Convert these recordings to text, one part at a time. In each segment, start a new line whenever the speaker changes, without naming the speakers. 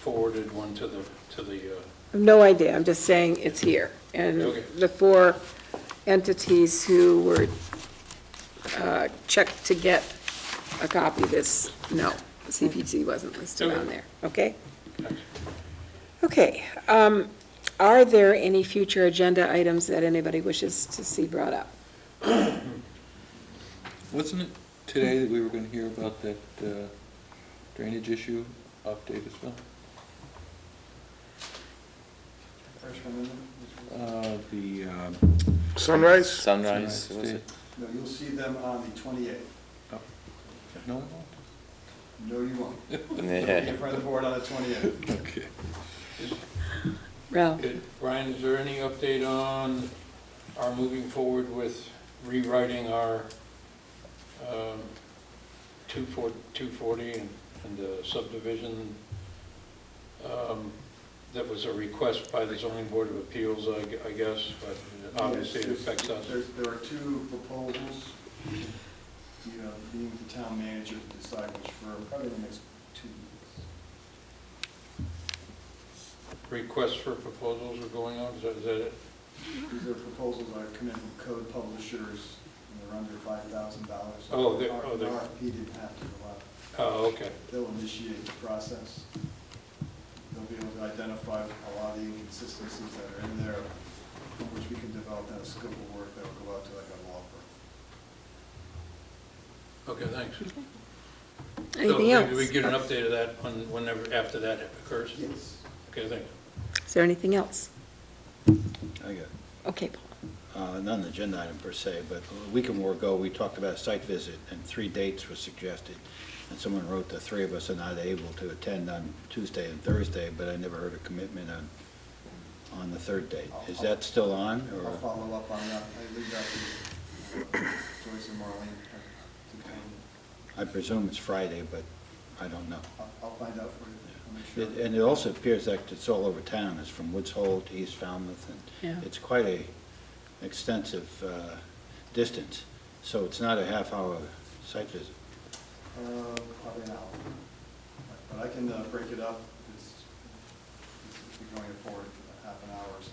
forwarded one to the, to the, uh,
I have no idea, I'm just saying it's here. And
Okay.
the four entities who were uh, checked to get a copy of this, no, CPG wasn't listed on
Okay.
there, okay? Okay, um, are there any future agenda items that anybody wishes to see brought up?
Wasn't it today that we were going to hear about that uh, drainage issue off Davisville?
First one, isn't it?
Uh, The um,
Sunrise,
Sunrise?
Sunrise
was
Day-
it?
uh, No, you'll see them on the 28th.
oh, No?
No, you won't. Be
Yeah.
in front of the board on the 28th.
Okay.
Ralph?
it- Brian, is there any update on our moving forward with rewriting our um, 240 240 and and the subdivision um, that was a request by the zoning board of appeals, I gu- I guess, but obviously it affects us.
There, there are two proposals, you know, being the town manager to decide which firm, probably in the next two weeks.
Requests for proposals are going on, is that is that it?
These are proposals that have come in from code publishers, and they're under five thousand dollars.
Oh, they're- oh, they're-
RFP didn't have to go out.
Oh, okay.
They'll initiate the process. They'll be able to identify a lot of the inconsistencies that are in there, from which we can develop that scope of work that will go out to like
Okay,
a law firm.
thanks.
Anything
So,
else?
we- We get an update of that when- whenever, after that occurs?
Yes.
Okay, thanks.
Is there anything else?
I got,
Okay, Paul.
uh, not an agenda item per se, but a week or more ago, we talked about a site visit, and three dates were suggested. And someone wrote the three of us are not able to attend on Tuesday and Thursday, but I never heard a commitment on, on the third date. Is that still on,
I'll
or?
follow up on that. I leave that to uh, Joyce and Marlene. uh, to kind
I presume it's Friday, but I don't know.
of- I'll, I'll find out for you. I'll make
It-
sure.
And it also appears like it's all over town, it's from Woods Hole to East Falmouth,
Yeah.
and it's quite a extensive uh, distance, so it's not a half-hour site visit.
Uh, Probably an hour. But I can uh, break it up. It's, it's been going forward for half an hour or so.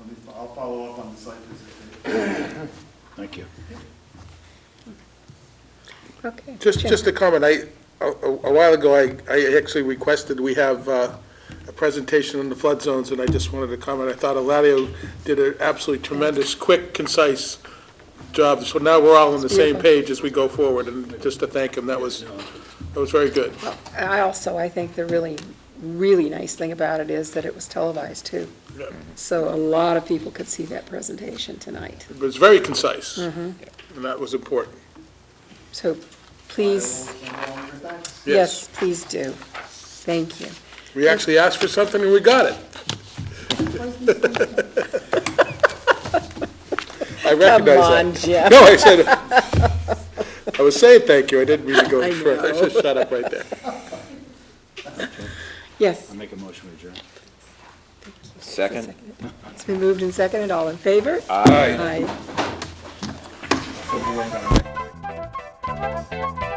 Let me, I'll follow up on the site visit.
Thank you.
Okay.
Just,
Jim.
just a comment, I, a a while ago, I, I actually requested, we have uh, a presentation on the flood zones, and I just wanted to comment, I thought Eladio did an absolutely tremendous, quick, concise job, so now we're all on the same
Beautiful.
page as we go forward, and just to thank him, that was, that was very good.
Well, I also, I think the really, really nice thing about it is that it was televised, too.
Yeah.
So a lot of people could see that presentation tonight.
It was very concise, and
Mm-hmm.
that was important.
So please,
I will send along your thanks.
yes, please do. Thank you.
We actually asked for something and we got it. I
Come
recognize that.
on, Jeff.
No, I said, I was saying thank you, I didn't mean to go
I
further, I
know.
should shut up right there.
Yes.
I'll make a motion to adjourn.
Second?
It's been moved and seconded. All in favor? Aye. Aye.
Hope you all got a-